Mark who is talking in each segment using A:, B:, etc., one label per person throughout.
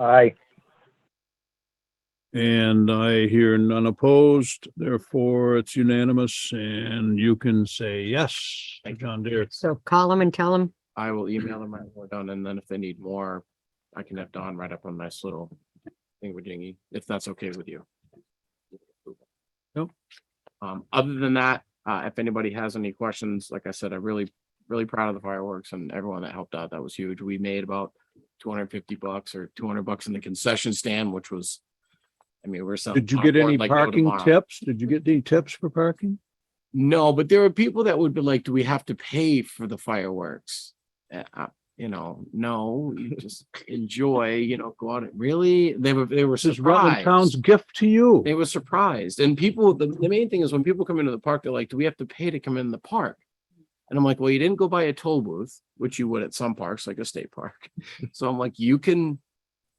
A: Aye.
B: And I hear none opposed, therefore it's unanimous and you can say yes to John Deere.
C: So call them and tell them,
D: I will
B: Mm-hmm.
D: email them my word down and then if they need more, I can have Don write up a nice little thing with Dingy, if that's okay with you.
B: Yep.
D: Um, other than that, uh, if anybody has any questions, like I said, I'm really, really proud of the fireworks and everyone that helped out. That was huge. We made about two hundred and fifty bucks or two hundred bucks in the concession stand, which was, I mean, we're selling.
B: Did you get
D: popcorn
B: any
D: like no
B: parking
D: tomorrow.
B: tips? Did you get any tips for parking?
D: No, but there are people that would be like, do we have to pay for the fireworks? Uh, uh, you know, no, you just enjoy, you know, go out and really, they were, they were
B: This is Rutland Town's
D: surprised.
B: gift to you.
D: They were surprised and people, the, the main thing is when people come into the park, they're like, do we have to pay to come in the park? And I'm like, well, you didn't go by a toll booth, which you would at some parks, like a state park. So I'm like, you can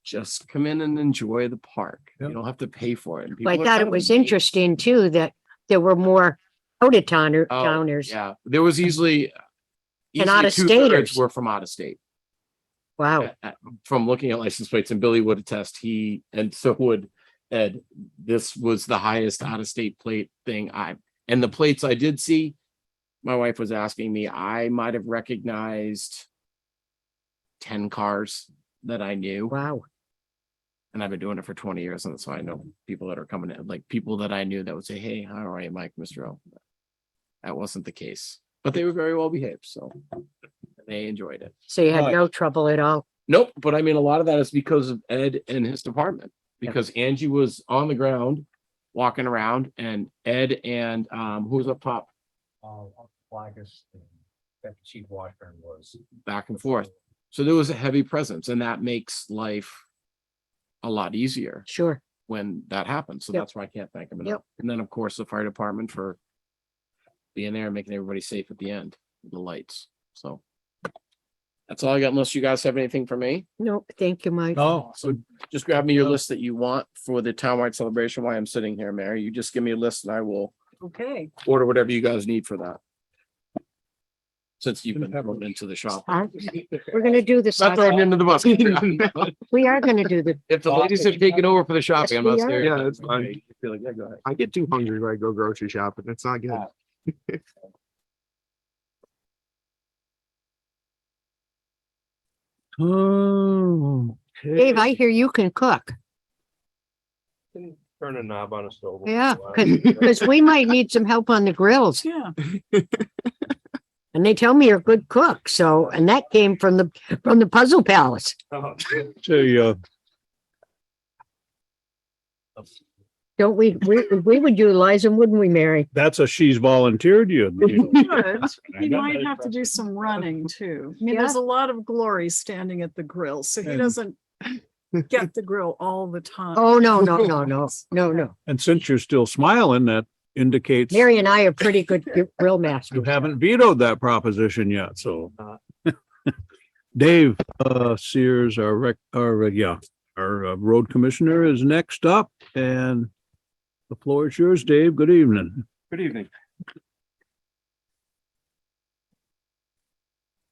D: just come in and enjoy the park. You
B: Yep.
D: don't have to pay for it. And
C: but I
D: people are
C: thought it
D: coming.
C: was interesting too, that there were more out of towner,
D: Oh,
C: towners.
D: Yeah, there was easily.
C: And
D: easily
C: out-of-staters.
D: two-thirds Were from out of state.
C: Wow,
D: At- at- From looking at license plates and Billy would attest, he, and so would Ed, this was the highest out of state plate thing I, and the plates I did see. My wife was asking me, I might have recognized ten cars that I knew.
C: wow.
D: And I've been doing it for twenty years, and so I know people that are coming in, like people that I knew that would say, hey, how are you, Mike, Mr. O? That wasn't the case, but they were very well behaved, so they enjoyed it.
C: So you had
B: Right.
C: no trouble at all.
D: Nope, but I mean, a lot of that is because of Ed and his department, because Angie was on the ground, walking around, and Ed and, um, who was up top,
A: Uh, Flagus, that uh, Chief Washburn was.
D: back and forth. So there was a heavy presence, and that makes life a lot easier.
C: Sure.
D: when that happens. So
C: Yep.
D: that's why I can't thank them
C: Yep.
D: enough. And then, of course, the fire department for being there and making everybody safe at the end, with the lights. So that's all I got unless you guys have anything for me.
C: No, thank you, Mike.
B: Oh,
D: So just grab me your
B: No.
D: list that you want for the townwide celebration while I'm sitting here, Mary. You just give me a list and I will
C: Okay.
D: order whatever you guys need for that. Since you've been
B: Didn't have
D: thrown
B: much.
D: into the shop.
C: We're gonna do this.
D: Not thrown
C: Arthur.
D: into the bus.
C: We are gonna do the,
D: If the ladies have taken over for the shopping, I'm not
C: we are.
D: serious.
E: Yeah, that's fine.
D: Okay, you feel like, yeah, go ahead.
E: I get too hungry when I go grocery shopping. It's not good.
B: okay.
C: Dave, I hear you can cook.
A: Turn a knob on a stove.
C: Yeah, because we might need some help on the grills.
F: Yeah.
C: And they tell me you're a good cook. So, and that came from the, from the Puzzle Palace.
G: Oh,
B: To, uh,
C: Don't we, we, we would utilize them, wouldn't we, Mary?
B: that's a she's volunteered you. you. know.
F: Good. He
B: got
F: might
B: that
F: have to do some running too. I mean, there's a lot of glory standing at the grill, so he
B: And-
F: doesn't get the grill all the time.
C: Oh, no, no, no, no, no, no.
B: And since you're still smiling, that indicates you
C: Mary and I are pretty good gr- grill masters.
B: haven't vetoed that proposition yet, so.
G: Uh,
B: Dave, uh, Sears, our rec, our, uh, yeah, our uh, road commissioner is next up and the floor is yours, Dave. Good evening.
G: Good evening.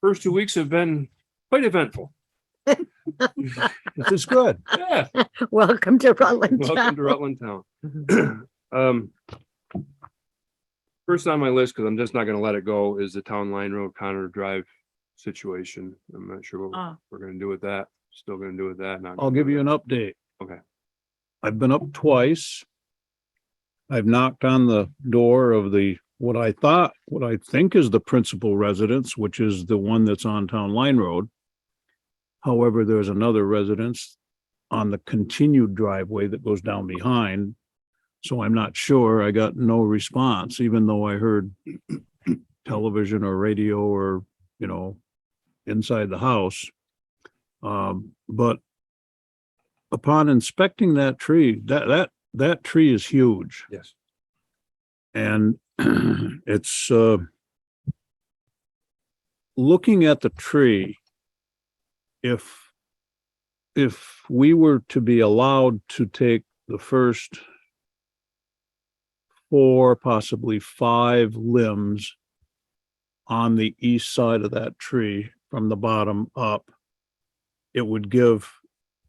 G: First two weeks have been quite eventful.
B: This is good.
G: Yeah,
C: Welcome to Rutland
G: welcome
C: Town. Mm-hmm.
G: to Rutland Town. Um, First on my list, because I'm just not gonna let it go, is the Town Line Road Connor Drive situation. I'm not sure
C: Uh.
G: what
F: Ah,
G: we're gonna do with that. Still gonna do with that. not
B: I'll
G: gonna
B: give
G: do
B: you
G: with
B: an update.
G: Okay.
B: I've been up twice. I've knocked on the door of the, what I thought, what I think is the principal residence, which is the one that's on Town Line Road. However, there's another residence on the continued driveway that goes down behind. So I'm not sure. I got no response, even though I heard television or radio or, you know, inside the house. Um, but upon inspecting that tree, that, that, that tree is huge
G: that. Yes.
B: and it's, uh, looking at the tree, if, if we were to be allowed to take the first four, possibly five limbs on the east side of that tree from the bottom up, it would give